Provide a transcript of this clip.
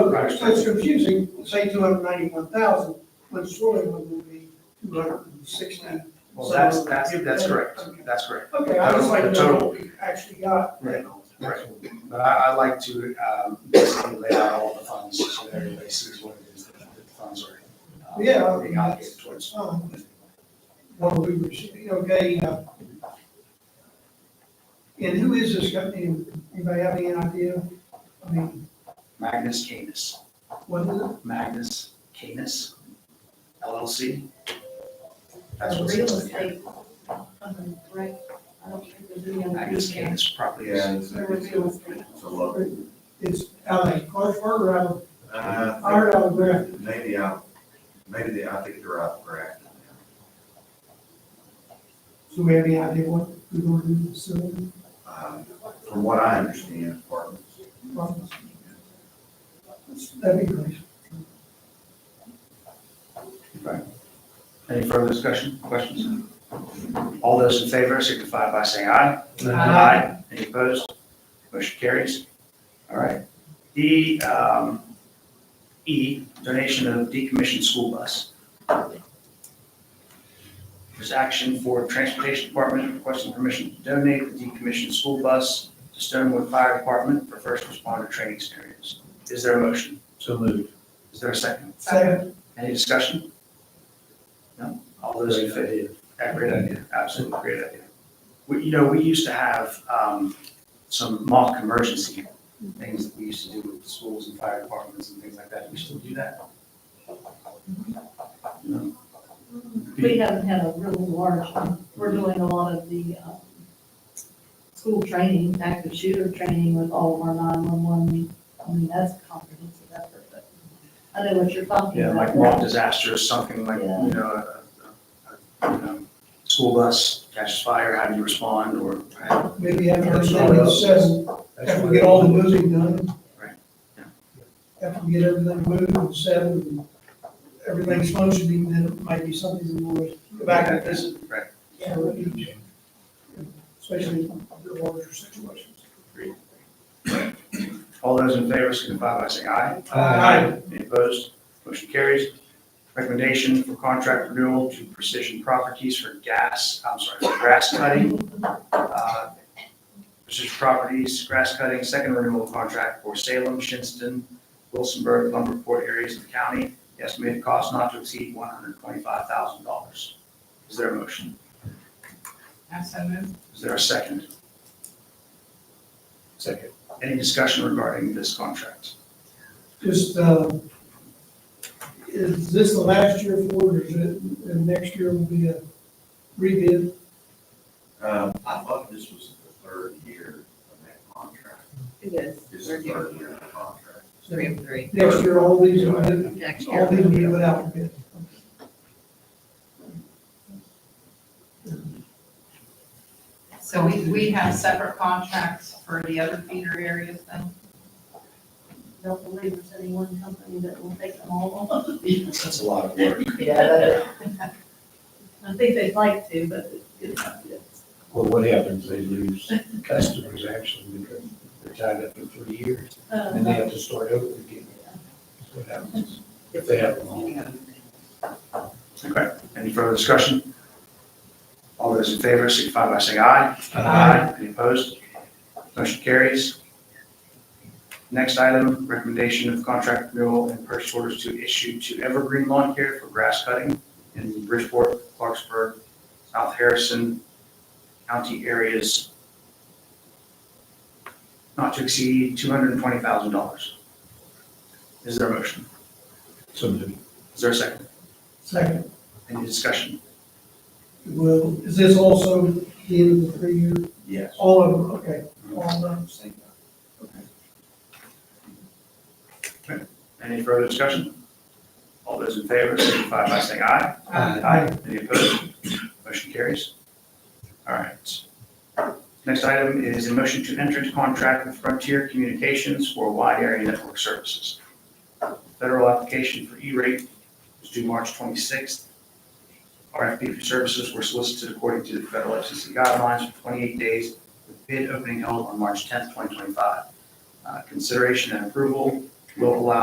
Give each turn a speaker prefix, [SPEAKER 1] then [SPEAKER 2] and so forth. [SPEAKER 1] So, so it's confusing, say two hundred ninety-one thousand, when Sterling one would be two hundred and sixty.
[SPEAKER 2] Well, that's, that's, that's correct, that's correct.
[SPEAKER 1] Okay, I just like to know
[SPEAKER 2] Total.
[SPEAKER 1] what we actually got.
[SPEAKER 2] Right. Right. But I, I'd like to, um, basically lay out all the funds so that everybody sees what it is that the funds are. uh,
[SPEAKER 1] Yeah.
[SPEAKER 2] Being allocated towards.
[SPEAKER 1] Um, What we received, okay, uh, and who is this company? Anybody have any idea? I mean,
[SPEAKER 2] Magnus Canis,
[SPEAKER 1] what is it?
[SPEAKER 2] Magnus Canis LLC. That's
[SPEAKER 3] a
[SPEAKER 2] what's
[SPEAKER 3] real
[SPEAKER 2] listed here.
[SPEAKER 3] estate company, right? I don't think there's any other.
[SPEAKER 2] Magnus Canis Properties.
[SPEAKER 4] Yeah, it's,
[SPEAKER 3] There was
[SPEAKER 4] it's
[SPEAKER 3] real
[SPEAKER 4] a,
[SPEAKER 3] estate.
[SPEAKER 4] it's a low.
[SPEAKER 1] It's out of Clarksburg or out of,
[SPEAKER 4] Uh,
[SPEAKER 1] or out of
[SPEAKER 4] I
[SPEAKER 1] where?
[SPEAKER 4] think Maybe out, maybe they, I think they're out of Grafton now.
[SPEAKER 1] Do we have any idea what we're going to do with the facility?
[SPEAKER 4] Um, From what I understand, apartments.
[SPEAKER 1] That'd be great.
[SPEAKER 2] Any further discussion, questions? All those in favor signify by saying aye. Any opposed? Motion carries. All right. D, um, E, donation of decommissioned school bus. There's action for Transportation Department requesting permission to donate the decommissioned school bus to Stonewood Fire Department for first responder training experience. Is there a motion?
[SPEAKER 5] So moved.
[SPEAKER 2] Is there a second?
[SPEAKER 1] Second,
[SPEAKER 2] Any discussion? No? All those in favor? Yeah, great idea, absolutely great idea. We, you know, we used to have, um, some mock emergency things that we used to do with schools and fire departments and things like that. We still do that? No?
[SPEAKER 3] We haven't had a real large one. We're doing a lot of the, um, school training, active shooter training with all of our nine-one-one. I mean, that's a comprehensive effort, but I know what you're talking
[SPEAKER 2] Yeah, like
[SPEAKER 3] about.
[SPEAKER 2] mock disaster or something like, you know, a, a, a, you know, school bus catches fire, how do you respond or?
[SPEAKER 1] maybe after our zoning says, after we get all the moving done.
[SPEAKER 2] Right, yeah.
[SPEAKER 1] After we get everything moved and settled and everything's functioning, then it might be something that we'll go back and visit.
[SPEAKER 2] Right.
[SPEAKER 1] for each, Especially the larger situations.
[SPEAKER 2] All those in favor signify by saying aye.
[SPEAKER 1] Aye.
[SPEAKER 2] Any opposed? Motion carries. Recommendation for contract renewal to Precision Properties for gas, I'm sorry, for grass cutting. Uh, Precision Properties, grass cutting, second renewal contract for Salem, Shinston, Wilsonburg, Lumberport areas of the county. Estimated cost not to exceed one hundred twenty-five thousand dollars. Is there a motion? Is there a second?
[SPEAKER 5] Second.
[SPEAKER 2] Any discussion regarding this contract?
[SPEAKER 1] Just, uh, is this the last year for it, or is it, and next year will be a rebid?
[SPEAKER 4] Um, I thought this was the third year of that contract.
[SPEAKER 6] It is.
[SPEAKER 4] This
[SPEAKER 6] We're
[SPEAKER 4] is the
[SPEAKER 6] doing
[SPEAKER 4] third year of the contract.
[SPEAKER 6] three and three.
[SPEAKER 1] Next year, all these, will be-
[SPEAKER 6] Next
[SPEAKER 1] all
[SPEAKER 6] year.
[SPEAKER 1] these will be without bid.
[SPEAKER 6] So we, we have separate contracts for the other feeder areas then?
[SPEAKER 3] Don't believe there's any one company that will take them all.
[SPEAKER 2] That's a lot of work.
[SPEAKER 6] Yeah.
[SPEAKER 3] I think they'd like to, but it's not good.
[SPEAKER 5] Well, what happens, they lose customers actually because they're tied up for three years and they
[SPEAKER 3] Uh,
[SPEAKER 5] have to start over again. That's what happens if they have a long.
[SPEAKER 2] Okay, any further discussion? All those in favor signify by saying aye. Any opposed? Motion carries. Next item, recommendation of contract renewal and purchase orders to issue to Evergreen Lawn Care for grass cutting in the Bridgeport, Clarksburg, South Harrison County areas not to exceed $220,000. Is there a motion?
[SPEAKER 5] So moved.
[SPEAKER 2] Is there a second?
[SPEAKER 1] Second,
[SPEAKER 2] Any discussion?
[SPEAKER 1] will, is this also the end of the three year?
[SPEAKER 4] Yes.
[SPEAKER 1] All of them, okay, all of them.
[SPEAKER 2] Any further discussion? All those in favor signify by saying aye. Aye. Any opposed? Motion carries. All right. Next item is a motion to enter into contract with Frontier Communications for wide area network services. Federal application for E-rate is due March 26th. RFP for services were solicited according to the federal FCC guidelines for 28 days with bid opening held on March 10th, 2025. Uh, Consideration and approval will allow